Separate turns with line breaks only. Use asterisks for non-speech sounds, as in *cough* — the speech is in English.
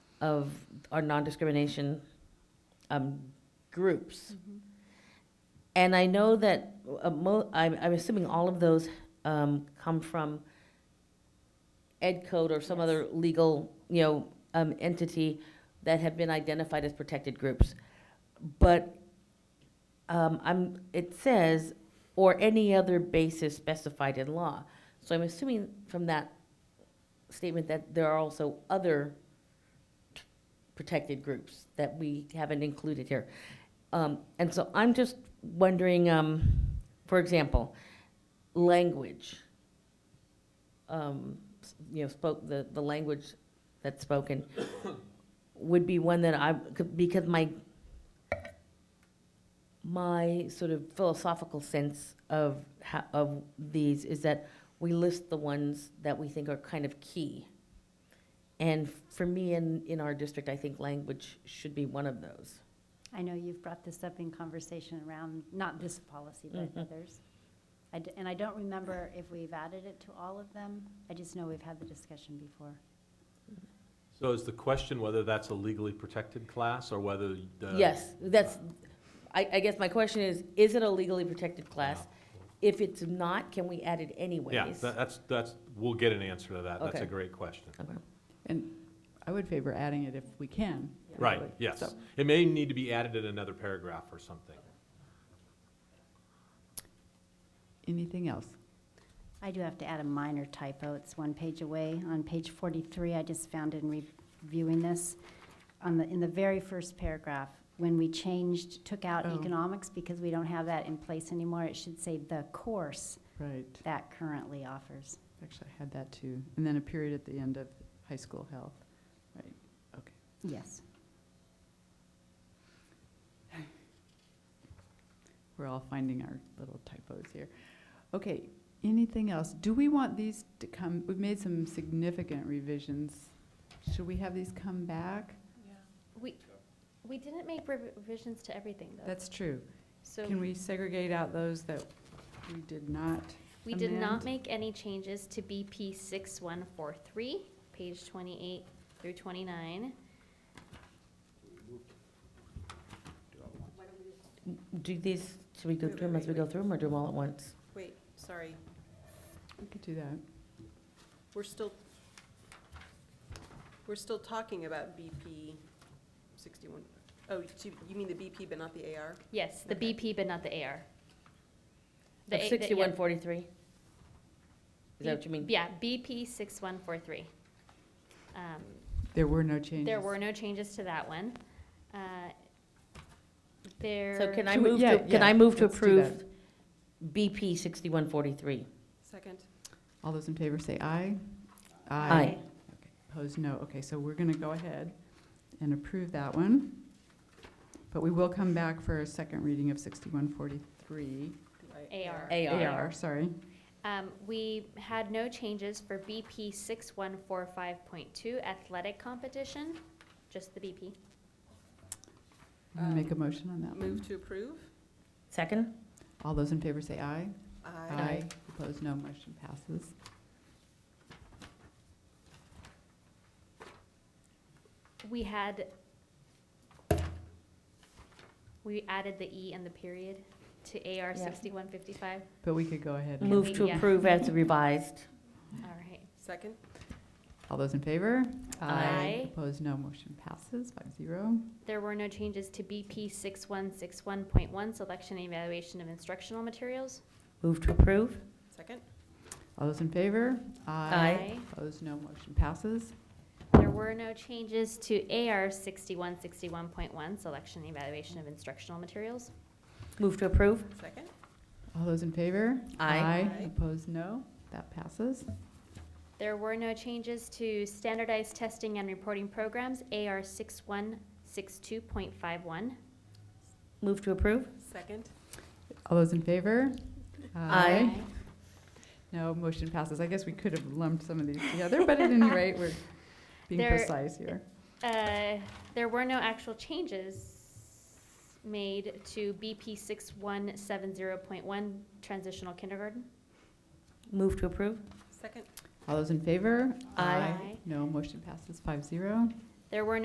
of our non-discrimination um, groups. And I know that, uh, mo- I'm, I'm assuming all of those um, come from Ed Code or some other legal, you know, um, entity that have been identified as protected groups. But um, I'm, it says, or any other basis specified in law. So I'm assuming from that statement that there are also other protected groups that we haven't included here. Um, and so I'm just wondering, um, for example, language. Um, s- you know, spoke, the, the language that's spoken *coughs* would be one that I, could- because my, my sort of philosophical sense of, ho- of these is that we list the ones that we think are kind of key. And for me, in, in our district, I think language should be one of those.
I know you've brought this up in conversation around, not this policy, but others. I d- And I don't remember if we've added it to all of them. I just know we've had the discussion before.
So is the question whether that's a legally protected class or whether the?
Yes, that's, I, I guess my question is, is it a legally protected class? If it's not, can we add it anyways?
Yeah, tha- that's, that's, we'll get an answer to that. That's
Okay.
a great question.
Okay.
And I would favor adding it if we can.
Right,
really.
yes.
So-
It may need to be added in another paragraph or something.
Anything else?
I do have to add a minor typo. It's one page away. On page 43, I just found in reviewing this, on the, in the very first paragraph, when we changed, took out
Oh.
economics because we don't have that in place anymore, it should say the course
Right,
that currently offers.
actually, I had that too. And then a period at the end of high school health, right, okay.
Yes.
We're all finding our little typos here. Okay, anything else? Do we want these to come, we've made some significant revisions. Should we have these come back?
We, we didn't make revisions to everything, though.
That's true.
So
Can we segregate out those that we did not?
we did
amend?
not make any changes to BP 6143, page 28 through 29.
Do these, should we go through them as we go through them, or do them all at once?
Wait, sorry,
We could do that.
we're still, we're still talking about BP sixty-one, oh, you you mean the BP but not the AR?
Yes, the
Okay.
BP, but not the AR. The
Of
A- the- yeah,
sixty-one forty-three? Is that what you mean?
Yeah, BP 6143. Um,
There were no changes.
There were no changes to that one. Uh, There.
So can I
Can we-
move
yeah,
to, can
yeah,
I move to
let's do
approve BP sixty-one forty-three?
Second,
All those in favor say aye.
Aye.
Okay, Opposed, no. Okay, so we're going to go ahead and approve that one. But we will come back for a second reading of 6143.
I-
AR.
AR.
AR, sorry.
Um, we had no changes for BP six one four five point two athletic competition, just the BP.
Wanna
Um,
Make a motion on that one.
Move to approve?
Second?
All those in favor say aye.
Aye.
Opposed, no. Motion passes.
We had, we added the E and the period to AR
Yeah.
sixty-one fifty-five,
But we could go ahead. and-
Move to
Yeah.
approve as revised.
all right.
Second,
All those in favor?
Aye.
Opposed, no. Motion passes, five zero.
There were no changes to BP six one six one point one, selection and evaluation of instructional materials.
Move to approve?
second,
All those in favor?
Aye.
Opposed, no. Motion passes.
There were no changes to AR sixty-one sixty-one point one, selection and evaluation of instructional materials.
Move to approve?
second,
All those in favor?
Aye.
Aye.
Opposed, no. That passes.
There were no changes to standardized testing and reporting programs, AR 6162.51.
Move to approve?
second,
All those in favor?
Aye.
No, motion passes. I guess we could have lumped some of these together,
*laughs*
but at any rate, we're being
There-
precise here.
Uh, There were no actual changes made to BP 6170.1 transitional kindergarten.
Move to approve?
second.
All those in favor?
Aye.
No, motion passes five zero.
There were